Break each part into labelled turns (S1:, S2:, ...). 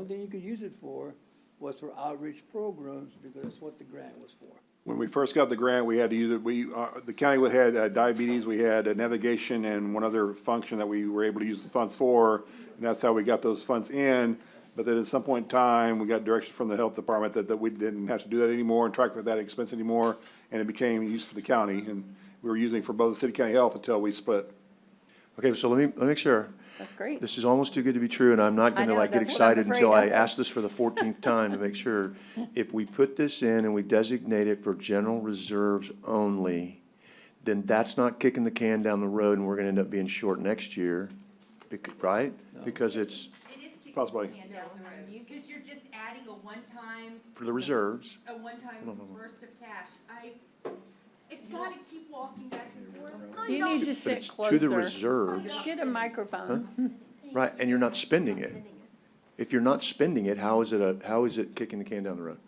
S1: Only thing you could use it for was for outreach programs, because that's what the grant was for.
S2: When we first got the grant, we had to use it, we, uh, the county we had uh, diabetes, we had uh, navigation and one other function that we were able to use the funds for. And that's how we got those funds in. But then at some point in time, we got direction from the health department that, that we didn't have to do that anymore and track that expense anymore. And it became used for the county and we were using it for both the city county health until we split.
S3: Okay, so let me, let me make sure.
S4: That's great.
S3: This is almost too good to be true, and I'm not
S4: I
S3: gonna
S4: know,
S3: like get
S4: that's what I'm
S3: excited until I
S4: afraid of.
S3: ask this for the fourteenth time to make sure. If we put this in and we designate it for general reserves only, then that's not kicking the can down the road and we're gonna end up being short next year, bec- right? Because it's
S5: It is kicking
S2: Possibly.
S5: the can down the road, because you're just adding a one-time,
S3: for the reserves.
S5: a one-time burst of cash. I, it's gotta keep walking back and forth.
S4: You need to
S3: but
S4: sit
S3: it's To the
S4: closer.
S3: reserves,
S4: Get a microphone.
S3: right, and you're not spending it. If you're not spending it, how is it a, how is it kicking the can down the road?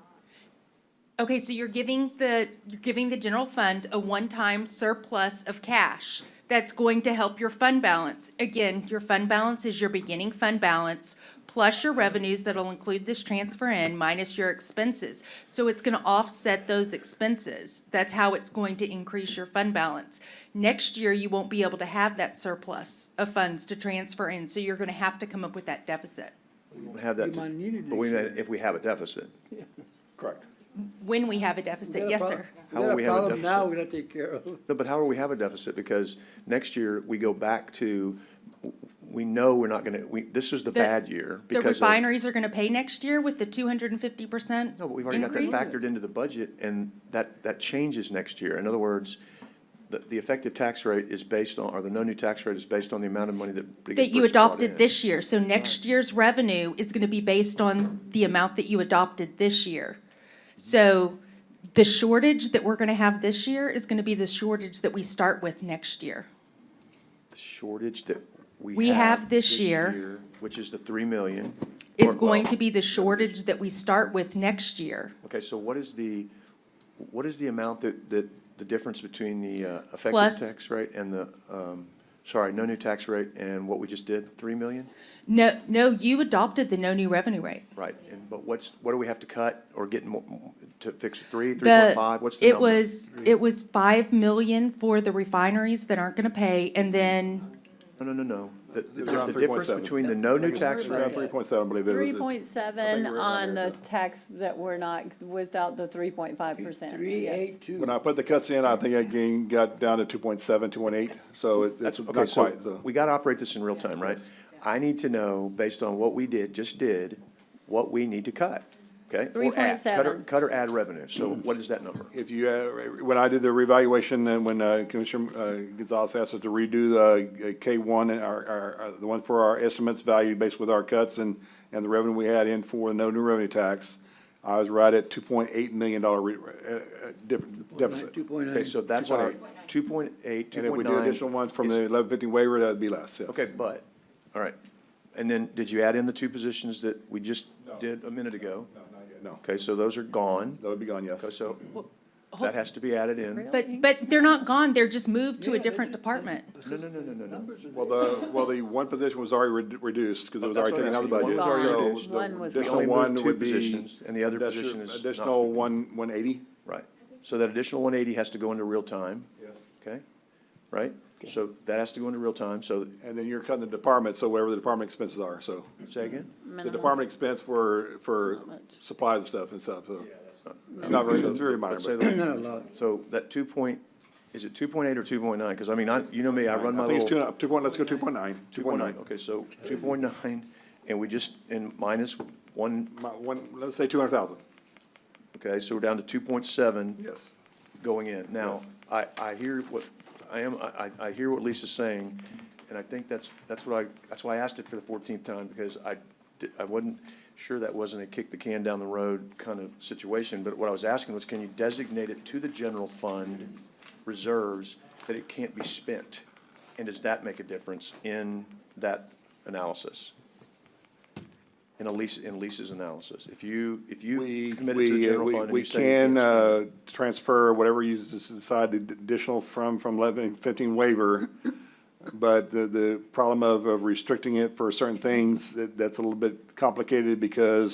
S5: Okay, so you're giving the, you're giving the general fund a one-time surplus of cash that's going to help your fund balance. Again, your fund balance is your beginning fund balance plus your revenues that'll include this transfer in minus your expenses. So it's gonna offset those expenses. That's how it's going to increase your fund balance. Next year, you won't be able to have that surplus of funds to transfer in, so you're gonna have to come up with that deficit
S3: We don't Have that,
S1: We might need
S3: to-
S1: it
S3: but we,
S1: next year.
S3: if we have a deficit.
S2: Correct.
S5: when we have a
S1: We got
S5: deficit.
S1: a
S5: Yes,
S1: prob-
S5: sir.
S1: We
S3: How will
S1: got
S3: we
S1: a
S3: have a
S1: problem now
S3: deficit?
S1: we gotta take care of.
S3: No, but how will we have a deficit? Because next year, we go back to, we know we're not gonna, we, this is the
S5: The-
S3: bad year.
S5: The
S3: because of-
S5: refineries are gonna pay next year with the two hundred and fifty percent
S3: No, but we've already got that
S5: increase?
S3: factored into the budget, and that, that changes next year. In other words, the, the effective tax rate is based on, or the no new tax rate is based on the amount of money that.
S5: That
S3: gets
S5: you
S3: first brought in.
S5: adopted this year, so next year's revenue is gonna be based on the amount that you adopted this year. So the shortage that we're gonna have this year is gonna be the shortage that we start with next year.
S3: The Shortage that we have.
S5: We have this year-
S3: Which is the three million.
S5: Is
S3: or-
S5: going
S3: well,
S5: to be the shortage that we start with next year.
S3: Okay, so what is the, what is the amount that, that, the difference between the uh, effective
S5: Plus-
S3: tax rate and the, um, sorry, no new tax rate and what we just did, three million?
S5: No, no, you adopted the no new revenue rate.
S3: Right, and, but what's, what do we have to cut or get more, to fix three, three
S5: The-
S3: point five, what's the number?
S5: It was, it was five million for the refineries that aren't gonna pay, and then
S3: No, no, no, no, the, the
S2: Around
S3: the difference
S2: 3.7.
S3: between the no new tax
S1: Around
S3: rate,
S2: Three point seven, I believe it was.
S4: Three point
S2: I think
S4: seven
S2: we were
S4: on
S2: under
S4: the
S2: the-
S4: tax that we're not, without the three point five percent.
S1: Three, eight, two.
S2: When I put the cuts in, I think I gained, got down to two point seven, two point eight, so it-
S3: that's,
S2: it's
S3: okay,
S2: not
S3: so,
S2: quite, so.
S3: we gotta operate this in real time, right? I need to know, based on what we did, just did, what we need to cut, okay? Or add, cut or-
S4: 3.7.
S3: Cut or add revenue, so what is that number?
S2: If you, uh, when I did the revaluation, and when uh, Commissioner uh, Gonzalez asked us to redo the uh, K one and our, our, our- the one for our estimates value based with our cuts and, and the revenue we had in for the no new revenue tax, I was right at two point eight million dollar re, uh, uh, diff- deficit.
S1: Two point
S3: Okay,
S1: nine.
S3: so that's our two point eight, two
S2: And if we
S3: point nine.
S2: do additional ones from the eleven fifty waiver, that'd be less, yes.
S3: Okay, but, all right, and then, did you add in the two positions that we just did a minute ago?
S2: No,
S3: Okay, so those are gone,
S2: that would be gone, yes.
S3: Okay, so that has to be added in.
S5: But, but they're not gone, they're just moved to
S1: Yeah,
S5: a
S1: they
S5: different
S1: just-
S5: department.
S3: No, no, no, no, no, no.
S2: Well, the, well, the one position was already redu- reduced, because it was
S3: Oh, That's
S2: already
S3: what I'm
S2: taken out of the budget.
S3: asking you. One
S4: was already
S2: so
S4: reduced.
S2: the
S4: One was
S2: Additional
S3: reduced. We only
S2: one
S3: moved two
S2: would be.
S3: positions, and the other
S2: additional-
S3: position is not-
S2: Additional one, one eighty?
S3: Right, so that additional one eighty has to go into real time, okay? Right, so that has to go into real time, so,
S2: And then you're cutting the department, so wherever the department expenses are, so.
S3: say again?
S2: The department expense for, for supplies and stuff and stuff, so. Not very, it's very minor,
S3: Let's say
S2: but.
S3: the-
S1: Not a lot.
S3: So that two point, is it two point eight or two point nine? Because I mean, I, you know me, I run my
S2: I think it's two,
S3: little.
S2: and- two point, let's go two point nine, two point nine.
S3: Okay, so two point nine, and we just, and minus one,
S2: My, one, let's say two hundred thousand,
S3: okay, so we're down to two point seven.
S2: yes.
S3: going in. Now,
S2: Yes.
S3: I, I hear what, I am, I, I I hear what Lisa's saying, and I think that's, that's what I, that's why I asked it for the fourteenth time, because I, di- I wasn't sure that wasn't a kick the can down the road kind of situation, but what I was asking was, can you designate it to the general fund reserves that it can't be spent? And does that make a difference in that analysis? In Elise, in Lisa's analysis? If you, if you
S2: We,
S3: committed to the
S2: we, uh,
S3: general
S2: we,
S3: fund and
S2: we
S3: you said you can't
S2: can,
S3: spend it.
S2: uh, transfer whatever you s- decide to d- additional from, from eleven fifteen waiver But the, the problem of, of restricting it for certain things, that, that's a little bit complicated because